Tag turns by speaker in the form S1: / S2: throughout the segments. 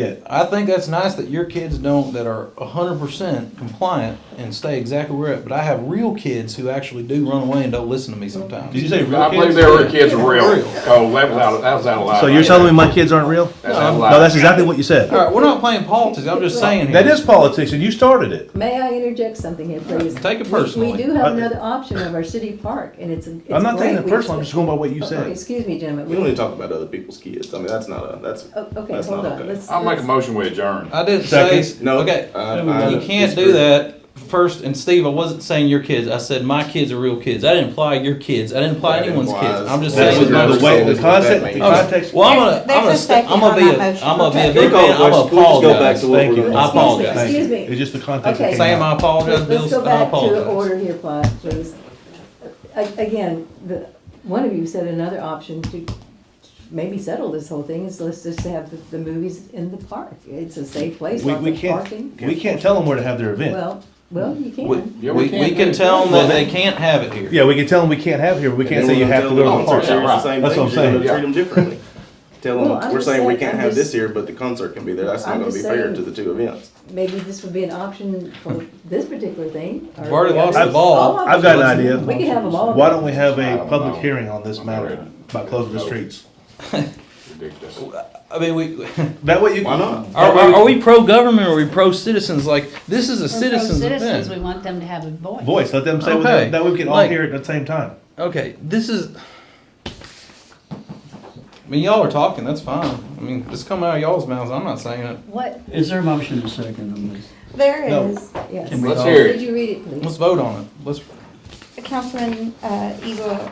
S1: it. I think that's nice that your kids don't, that are hundred percent compliant and stay exactly where it, but I have real kids who actually do run away and don't listen to me
S2: Did you
S1: sometimes.
S2: say real
S3: I believe
S2: kids?
S3: there were kids real. Oh, that was out, that was out of line.
S4: So you're telling me my kids aren't real?
S3: That's out of line.
S4: No, that's exactly what you said.
S1: Alright, we're not playing politics, I'm just saying here.
S4: That is politics, and you started it.
S5: May I interject something here, please?
S1: Take it
S5: We-
S1: personally.
S5: We do have
S4: I-
S5: another option of our city park, and it's, a- it's
S4: I'm not taking
S5: great.
S4: it personal, I'm just going by what you said.
S5: Excuse me, gentlemen.
S6: We don't need to talk about other people's kids. I mean, that's not a, that's.
S5: Oh, Okay,
S6: that's
S5: hold
S6: not
S5: on,
S6: okay.
S5: let's.
S3: I'll make a
S5: let's-
S3: motion we adjourn.
S1: I didn't say,
S4: Second.
S6: No,
S1: okay,
S6: I- I
S1: you can't do
S6: disagree.
S1: that. First, and Steve, I wasn't saying your kids, I said my kids are real kids, I didn't imply your kids, I didn't imply
S6: That
S1: anyone's
S6: implies-
S1: kids, I'm just
S4: That's
S1: saying. with my-
S4: the way, the concept, the
S1: Oh,
S4: context.
S1: Well, I'm gonna,
S7: There's-
S1: I'm gonna,
S7: there's a
S1: st- I'm
S7: second
S1: gonna be
S7: on
S1: a,
S7: my motion.
S1: I'm gonna be a
S7: Okay.
S1: big man, I'm gonna
S6: Can we just go back
S1: apologize.
S6: to what
S4: Thank
S6: we're
S4: you.
S6: doing?
S1: I
S5: Excuse me,
S1: apologize.
S4: Thank
S5: Excuse
S4: you.
S5: me.
S4: It's just the context.
S5: Okay.
S4: that
S1: Sam,
S4: came
S1: I
S4: out.
S1: apologize,
S5: Let's-
S1: Bill,
S5: Let's go
S1: I
S5: back to
S1: apologize.
S5: order here, pla- please. A- Again, the, one of you said another option to maybe settle this whole thing is let's just have the, the movies in the park. It's a safe place,
S4: We,
S5: lots
S4: we
S5: of
S4: can't,
S5: parking.
S4: we can't tell them where to have their event.
S5: Well, well, you can.
S1: We,
S3: Yeah,
S1: we-
S3: can't
S1: we
S3: do
S1: can
S3: it.
S1: tell them that they can't have it here.
S4: Yeah, we can tell them we can't have here, but we
S6: And
S4: can't
S6: then
S4: say you
S6: we're
S4: have to
S6: gonna
S4: go
S6: tell
S4: to the
S6: them concert
S4: park.
S3: Yeah,
S6: series
S3: right.
S6: the same
S4: That's
S6: thing.
S4: what I'm
S6: You're gonna
S4: saying.
S6: Treat them differently. Tell
S5: Well,
S6: them,
S5: I'm
S6: we're
S5: just
S6: saying we
S5: saying-
S6: can't
S5: I'm
S6: have this
S5: just-
S6: here, but the concert can be there. That's
S5: I'm
S6: not gonna be
S5: just
S6: fair
S5: saying-
S6: to the two events.
S5: maybe this would be an option for this particular thing. or-
S1: We've already lost the
S5: All
S1: ball.
S5: of
S4: I've
S5: us.
S4: got an idea.
S5: We could have them all.
S4: Why don't we have
S3: I
S4: a
S3: don't
S4: public
S3: know.
S4: hearing on this matter by closing the streets?
S3: Ridiculous.
S1: I mean, we,
S4: That way you
S6: Why
S4: can.
S6: not?
S1: are, are are we pro-government or are we pro-citizens? Like, this is a
S7: We're pro
S1: citizen's
S7: Citizens, we
S1: event.
S7: want them to have a voice.
S4: Voice, let them say what
S1: Okay.
S4: they, that way we can all
S1: Like-
S4: hear it at the same time.
S1: Okay, this is, I mean, y'all are talking, that's fine. I mean, it's come out of y'all's mouths, I'm not saying it.
S7: What,
S8: Is there a motion and a second on this?
S4: No.
S7: there is,
S5: Yes.
S8: Can we
S3: Let's
S8: all-
S3: hear
S5: Did
S3: it.
S5: you read it, please?
S1: Let's vote on it. Let's,
S7: Councilman, uh, Eagle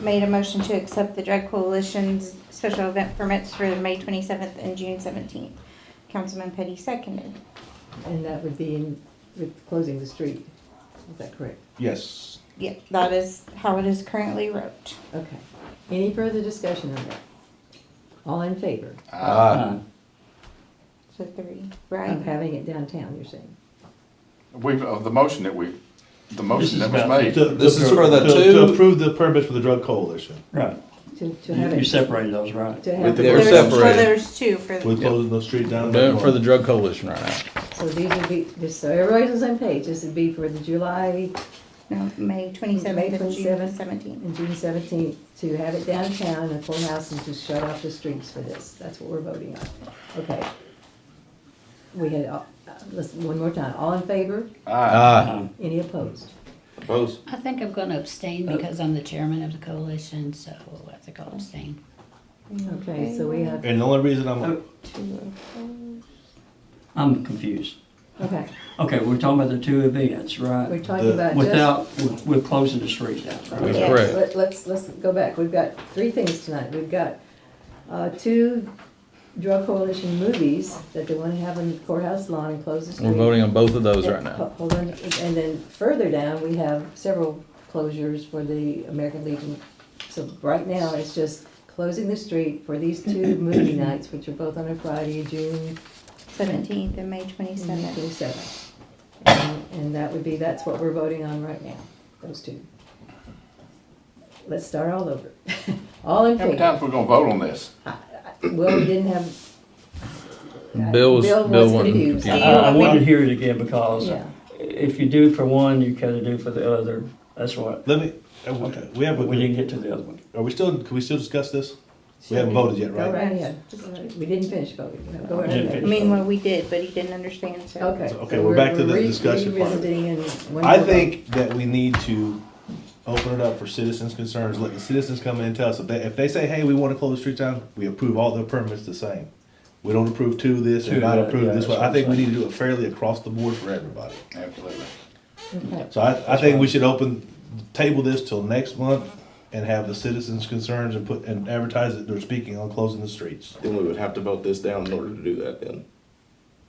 S7: made a motion to accept the Drug Coalition's special event permits for May twenty-seventh and June seventeenth. Councilman Petty seconded.
S5: And that would be in, with closing the street. Is that correct?
S4: Yes.
S7: Yep, that is how it is currently wrote.
S5: Okay. Any further discussion on that? All in favor
S8: Aye.
S7: So three,
S5: of
S7: right?
S5: having it downtown, you're saying?
S3: We've, of the motion that we, the
S8: This
S3: motion
S8: is
S3: that was
S8: about-
S3: made.
S4: To-
S1: This
S4: to-
S1: is for the
S4: to-
S1: two-
S4: To approve the permits for the drug coalition
S8: Right.
S5: To, to have
S8: You you
S5: it,
S8: separated those, right?
S5: to
S6: With
S5: have, it-
S6: the-
S1: they're
S7: There's- Well,
S1: separated.
S7: there's two for,
S4: We're closing the street down.
S1: We're doing it for the drug coalition right now.
S5: so these would be, just so everybody's on the same page, this would be for the July
S7: no, May
S5: May
S7: twenty-seventh and June
S5: 27th.
S7: seventeenth.
S5: and June seventeenth, to have it downtown and full house and to shut off the streets for this. That's what we're voting on. Okay. We had, all- uh, listen, one more time, all in favor?
S3: Aye.
S1: Uh,
S5: Any opposed?
S6: Opposed?
S9: I think I'm gonna abstain because I'm the chairman of the coalition, so I think I'll abstain.
S5: Okay, so we have,
S4: And the only reason I'm,
S8: I'm confused.
S5: okay,
S8: Okay, we're talking about the two events,
S5: we're
S8: right?
S5: talking
S4: The-
S5: about just.
S8: Without, we're- we're closing the street down, right?
S1: That's correct.
S5: Let- Let's, let's go back. We've got three things tonight. We've got uh, two drug coalition movies that they want to have on the courthouse lawn and close the street.
S1: we're voting on both of those right now.
S5: Ho- Hold on, and then further down, we have several closures for the American Legion. So right now, it's just closing the street for these two movie nights, which are both on a Friday, June
S7: Seventeenth and May twenty-seventh.
S5: twenty-seventh. And and that would be, that's what we're voting on right now, those two. Let's start all over. All in
S3: How many
S5: favor?
S3: times we gonna vote on this?
S5: Well, we didn't have.
S1: Bill was,
S5: Bill
S1: Bill
S5: was
S1: wasn't.
S5: confused.
S8: I,
S1: yeah.
S8: I wanted to hear it again because
S5: Yeah.
S8: if you do for one, you gotta do for the other. That's what,
S4: let me, uh, we- we have,
S8: but we
S4: a-
S8: didn't get to the other one.
S4: are we still, can we still discuss this? We haven't voted yet,
S5: Go
S4: right?
S5: right ahead. We didn't finish voting. Go right
S8: Didn't
S5: ahead.
S8: finish.
S7: I mean, well, we did, but he didn't understand, so.
S5: Okay.
S4: Okay,
S5: so
S4: we're back to the
S5: re-
S4: discussion part.
S5: Revisiting in one
S4: I
S5: more
S4: think that we need to open it up for citizens' concerns, let the citizens come in and tell us, if they, if they say, hey, we wanna close the street down, we approve all the permits the same. We don't approve two this and
S8: Two
S4: not
S8: that,
S4: approve
S8: yeah,
S4: this
S8: that's
S4: one,
S8: what
S4: I
S8: I'm
S4: think we need
S8: saying.
S4: to do it fairly across the board for everybody.
S3: Absolutely.
S5: vote.
S4: So I, I think we should open, table this till next month and have the citizens' concerns and put, and advertise that they're speaking on closing the streets.
S6: Then we would have to vote this down in order to do that then.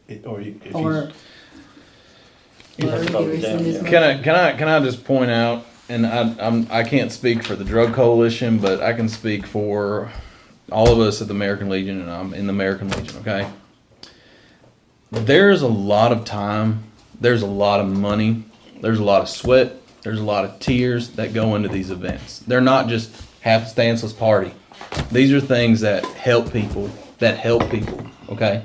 S4: It- Or you- if
S5: Or-
S4: you,
S8: You have to
S5: Well,
S8: vote it down,
S5: rescind
S8: yeah.
S5: his-
S1: Can I can I can I just point out, and I I'm, I can't speak for the drug coalition, but I can speak for all of us at the American Legion, and I'm in the American Legion. Okay, there's a lot of time, there's a lot of money, there's a lot of sweat, there's a lot of tears that go into these events. They're not just half stanceless party. These are things that help people, that help people. Okay.